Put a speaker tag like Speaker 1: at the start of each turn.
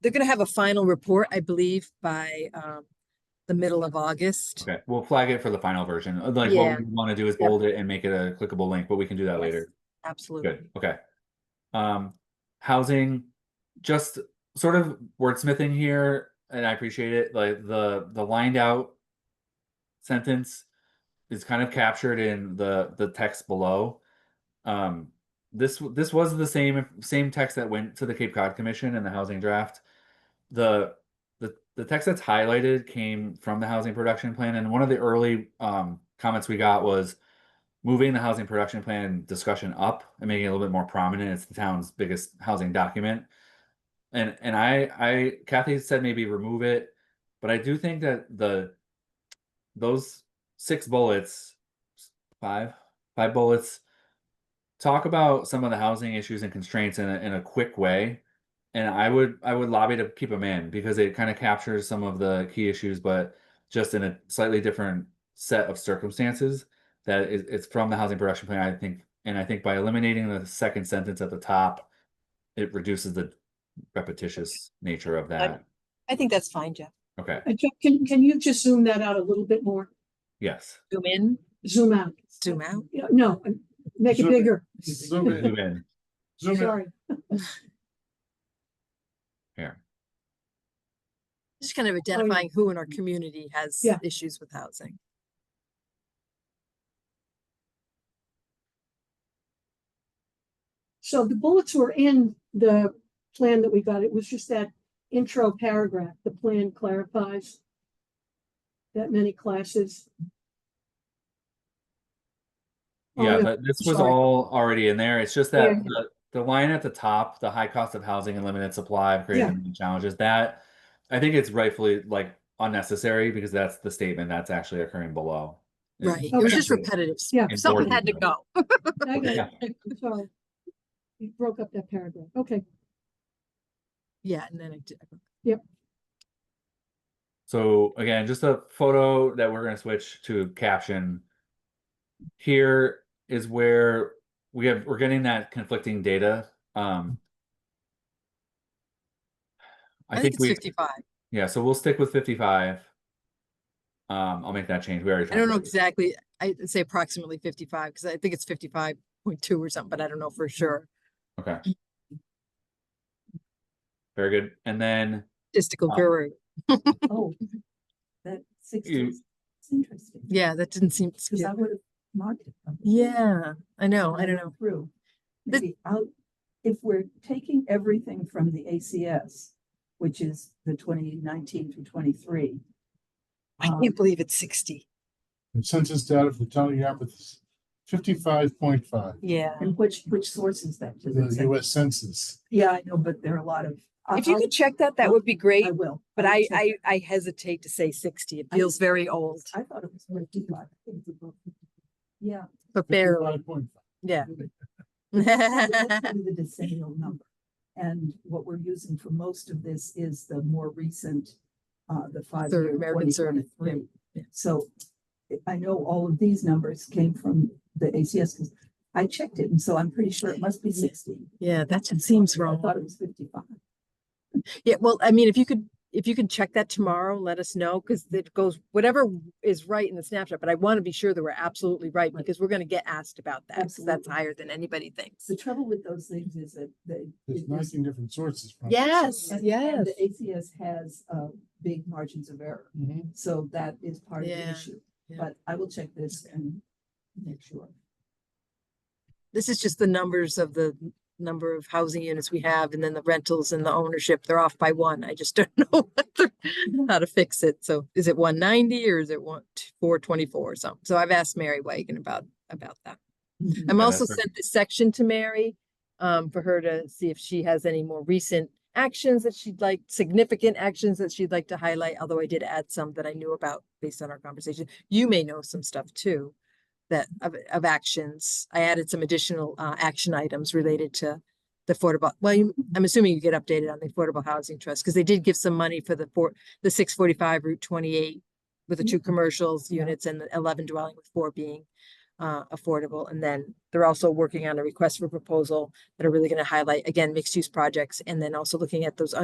Speaker 1: they're gonna have a final report, I believe, by um the middle of August.
Speaker 2: Okay, we'll flag it for the final version. Uh, Like
Speaker 1: Yeah.
Speaker 2: what we want to do is
Speaker 1: Yep.
Speaker 2: bold it and make it a clickable link, but we can do that later.
Speaker 1: Absolutely.
Speaker 2: Good. Okay. Um, housing, just sort of wordsmithing here, and I appreciate it. Like the the lined out sentence is kind of captured in the the text below. Um, this w- this was the same same text that went to the Cape Cod Commission in the housing draft. The the the text that's highlighted came from the housing production plan, and one of the early um comments we got was moving the housing production plan discussion up and making it a little bit more prominent. It's the town's biggest housing document. And and I I Kathy said maybe remove it, but I do think that the those six bullets, five, five bullets talk about some of the housing issues and constraints in a in a quick way. And I would I would lobby to keep them in because it kind of captures some of the key issues, but just in a slightly different set of circumstances that it- it's from the housing production plan, I think, and I think by eliminating the second sentence at the top, it reduces the repetitious nature of that.
Speaker 1: I think that's fine, Jeff.
Speaker 2: Okay,
Speaker 3: Uh, Jeff, Can, can you just zoom that out a little bit more?
Speaker 2: yes.
Speaker 1: Zoom in,
Speaker 3: Zoom out.
Speaker 1: zoom out.
Speaker 3: Yeah, No, uh, make it
Speaker 4: Zoom in.
Speaker 3: bigger.
Speaker 4: Zoom in,
Speaker 2: Zoom in.
Speaker 4: zoom in.
Speaker 3: Sorry.
Speaker 1: Just kind of identifying who in our community has
Speaker 3: Yeah.
Speaker 1: issues with housing.
Speaker 3: So the bullets were in the plan that we got. It was just that intro paragraph. The plan clarifies that many classes. Oh,
Speaker 2: Yeah, but this was
Speaker 3: sorry.
Speaker 2: all already in there. It's just
Speaker 3: Yeah.
Speaker 2: that the, the line at the top, the high cost of housing and limited supply of
Speaker 3: Yeah.
Speaker 2: creating challenges, that I think it's rightfully like unnecessary because that's the statement that's actually occurring below. Yeah.
Speaker 1: Right. It was just
Speaker 2: Okay.
Speaker 1: repetitive.
Speaker 3: Yeah.
Speaker 1: Something had to go.
Speaker 3: I got
Speaker 2: Yeah.
Speaker 3: it. I'm Sorry. You broke up that paragraph. Okay,
Speaker 1: Yeah, and then I did.
Speaker 2: So again, just a photo that we're gonna switch to caption. Here is where we have, we're getting that conflicting data, um.
Speaker 1: I think it's
Speaker 2: we,
Speaker 1: fifty-five.
Speaker 2: yeah, so we'll stick with fifty-five. Um, I'll make that change, we already.
Speaker 1: I don't know
Speaker 2: talked about
Speaker 1: exactly. I'd say approximately fifty-five, because I think it's fifty-five point two or something, but I don't know for sure.
Speaker 2: it. Okay. Very good, and then
Speaker 1: Statistical
Speaker 2: Um,
Speaker 1: guru.
Speaker 5: Oh, that sixty,
Speaker 2: You-
Speaker 5: is interesting.
Speaker 1: Yeah, that didn't seem.
Speaker 5: Cause I would have marked it. from the
Speaker 1: Yeah, I know, I don't know.
Speaker 5: Through.
Speaker 1: But-
Speaker 5: Maybe I'll, if we're taking everything from the ACS, which is the twenty nineteen through twenty-three.
Speaker 1: I
Speaker 5: um,
Speaker 1: can't believe it's sixty.
Speaker 4: The Census data for the town of Yarmouth is fifty-five point five,
Speaker 1: Yeah.
Speaker 5: And which, which source is that? Does it
Speaker 4: the
Speaker 5: say-
Speaker 4: US Census.
Speaker 5: Yeah, I know, but there are a lot of. I-
Speaker 1: If you
Speaker 5: I'll-
Speaker 1: could check that, that would be great,
Speaker 5: I will.
Speaker 1: but
Speaker 5: will
Speaker 1: Uh-huh. I,
Speaker 5: check
Speaker 1: I,
Speaker 5: it.
Speaker 1: I hesitate to say sixty. It
Speaker 5: I-
Speaker 1: feels very old,
Speaker 5: I thought it was fifty-five. I think it's above 55. Yeah.
Speaker 1: but barely,
Speaker 4: 55.5.
Speaker 1: yeah.
Speaker 5: Well, let's do The decennial number. And what we're using for most of this is the more recent, uh, the five year
Speaker 1: American
Speaker 5: twenty
Speaker 1: survey, yeah,
Speaker 5: twenty-three.
Speaker 1: yeah.
Speaker 5: So I- I know all of these numbers came from the ACS because I checked it and so I'm pretty sure it must be
Speaker 1: Yeah.
Speaker 5: sixty.
Speaker 1: Yeah, that just seems
Speaker 5: I
Speaker 1: wrong.
Speaker 5: thought it was fifty-five.
Speaker 1: Yeah, well, I mean, if you could, if you can check that tomorrow, let us know, because it goes, whatever is right in the snapshot, but I want to be sure that we're absolutely right,
Speaker 5: Right.
Speaker 1: because we're gonna get asked about that, 'cause that's
Speaker 5: Absolutely.
Speaker 1: higher than anybody thinks.
Speaker 5: The trouble with those things is that they.
Speaker 4: There's
Speaker 5: it is-
Speaker 4: nineteen different sources. from it.
Speaker 1: Yes,
Speaker 5: and- and
Speaker 1: yes.
Speaker 5: The ACS has, uh, big margins of error.
Speaker 4: Mhm.
Speaker 5: So that is part of the
Speaker 1: Yeah,
Speaker 5: issue,
Speaker 1: yeah.
Speaker 5: but I will check this and make sure.
Speaker 1: This is just the numbers of the n- number of housing units we have, and then the rentals and the ownership, they're off by one. I just don't know what the- how to fix it. So is it one ninety or is it one, four twenty-four or something? So I've asked Mary Wagon about, about that.
Speaker 5: Mhm.
Speaker 1: I'm
Speaker 2: Yeah,
Speaker 1: also
Speaker 2: that's right.
Speaker 1: sent this section to Mary, um, for her to see if she has any more recent actions that she'd like, significant actions that she'd like to highlight, although I did add some that I knew about based on our conversation. You may know some stuff too, that, of, of actions. I added some additional, uh, action items related to the affordable, well, you- I'm assuming you get updated on the Affordable Housing Trust, because they did give some money for the four, the six forty-five Route twenty-eight with the two commercials
Speaker 5: Yeah.
Speaker 1: units and the eleven dwelling with four being uh, affordable. And then they're also working on a request for proposal that are really going to highlight, again, mixed use projects. And then also looking at those